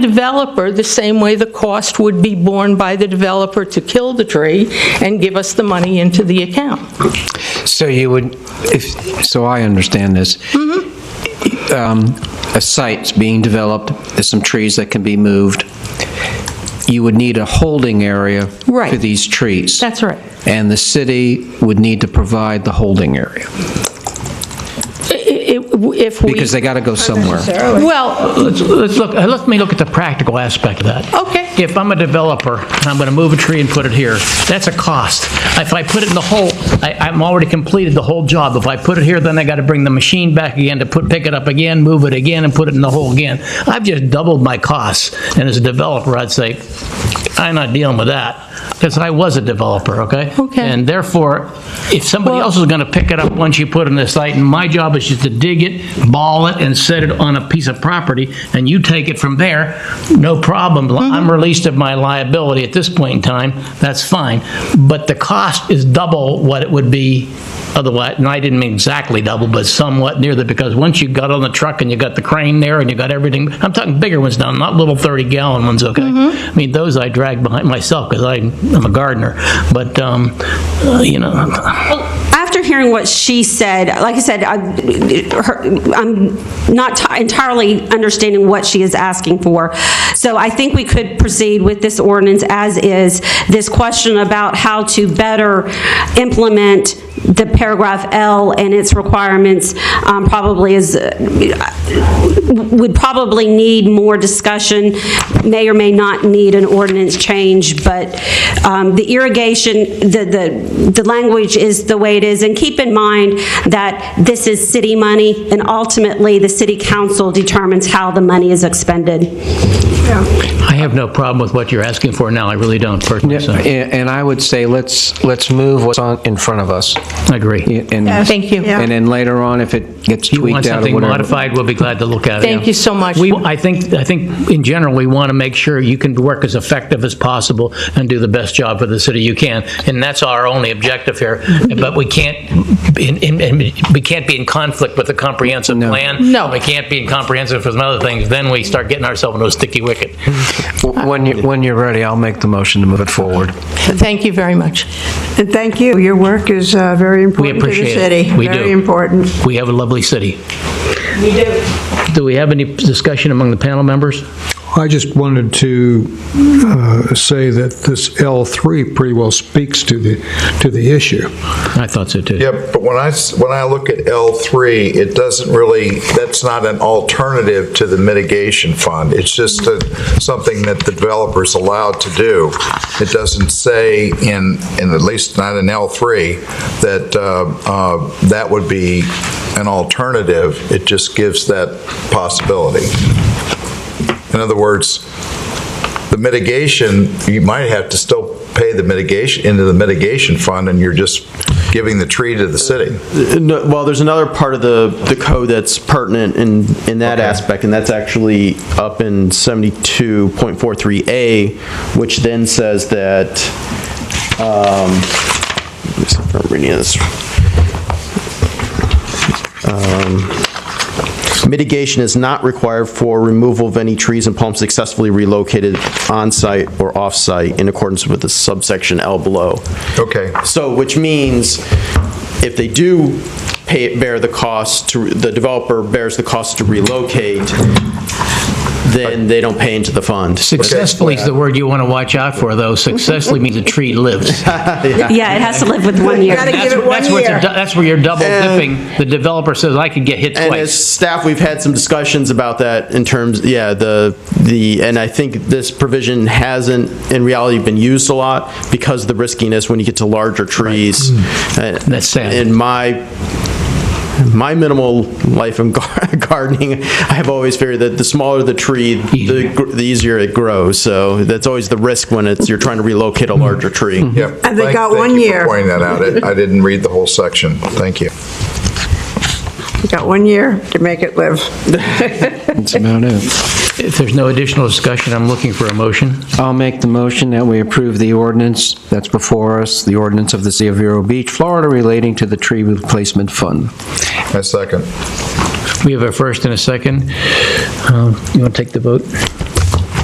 developer the same way the cost would be borne by the developer to kill the tree and give us the money into the account. So you would, if, so I understand this. Mm-hmm. Um, A site's being developed, there's some trees that can be moved. You would need a holding area Right. for these trees. That's right. And the city would need to provide the holding area, I- i- If we... because they got to go somewhere. Well, Let's, let's look, uh, let me look at the practical aspect of that. Okay. If I'm a developer, and I'm going to move a tree and put it here, that's a cost. If I put it in the hole, I, I'm already completed the whole job. If I put it here, then I got to bring the machine back again to put, pick it up again, move it again, and put it in the hole again. I've just doubled my costs, and as a developer, I'd say, I'm not dealing with that, because I was a developer, okay? Okay. And therefore, if somebody else is going to pick it up once you put it in the site, and my job is just to dig it, ball it, and set it on a piece of property, and you take it from there, no problem. I'm released of my liability at this point in time, that's fine. But the cost is double what it would be otherwise, and I didn't mean exactly double, but somewhat near that, because once you got on the truck and you got the crane there and you got everything, I'm talking bigger ones now, not little 30-gallon ones, okay? I mean, those I drag behind myself, because I'm a gardener, but, um, uh, you know, After hearing what she said, like I said, I- her- I'm not ti- entirely understanding what she is asking for. So I think we could proceed with this ordinance as is. This question about how to better implement the paragraph L and its requirements um, probably is, uh, would probably need more discussion, may or may not need an ordinance change, but um, the irrigation, the, the, the language is the way it is. And keep in mind that this is city money, and ultimately, the city council determines how the money is expended. I have no problem with what you're asking for now, I really don't personally, so, I And and I would say, let's, let's move what's on, in front of us. agree. And- Thank you. And then later on, if it gets You want tweaked out or something whatever. modified, we'll be glad to look at it. Thank yeah. you so much. We, I think, I think in general, we want to make sure you can work as effective as possible and do the best job for the city you can, and that's our only objective here. But we can't, be in- in- in- we can't be in conflict with the comprehensive plan. No. We can't be in comprehensive with some other things, then we start getting ourselves into a sticky wicket. W- When you, when you're ready, I'll make the motion to move it forward. Thank you very much. And thank you. Your work is uh, very important to the appreciate it. city. We do. Very important. We have a lovely city. We do. Do we have any discussion among the panel members? I just wanted to uh, say that this L3 pretty well speaks to the, to the issue. I thought so, too. Yep, but when I, s- when I look at L3, it doesn't really, that's not an alternative to the mitigation fund. It's just a- something that the developer's allowed to do. It doesn't say in, in at least not in L3, that uh, uh, that would be an alternative. It just gives that possibility. In other words, the mitigation, you might have to still pay the mitigation, into the mitigation fund, and you're just giving the tree to the city. No, well, there's another part of the, the code that's pertinent in, in that aspect, and that's actually up in 72.43A, which then says that, um, let me see if I'm reading this Um, Mitigation is not required for removal of any trees and palms successfully relocated on-site or off-site in accordance with the subsection L below. Okay. So, which means if they do pay, bear the cost to, the developer bears the cost to relocate, then they don't pay into the fund. Successfully is the word you want to watch out for, though. Successfully means a tree lives. Yeah, it has to live with one year. Gotta give That's it one that's what the- year. that's where you're double dipping. The developer says, I could get hit And as twice. staff, we've had some discussions about that in terms, yeah, the, the, and I think this provision hasn't in reality been used a lot because of the riskiness when you get to larger trees. That's That's sad. In my, my minimal life in gar- gardening, I have always figured that the smaller the tree, the gr- the easier it grows. So that's always the risk when it's, you're trying to relocate a larger tree. Yep. And they Thank- got one Thank you year. for pointing that out. I I didn't read the whole section. Thank you. You got one year to make it live. That's about it. If there's no additional discussion, I'm looking for a motion. I'll make the motion that we approve the ordinance that's before us, the ordinance of the City of Vero Beach, Florida relating to the tree replacement fund. My second. We have a first and a second. Um, Uh, You want to take the vote?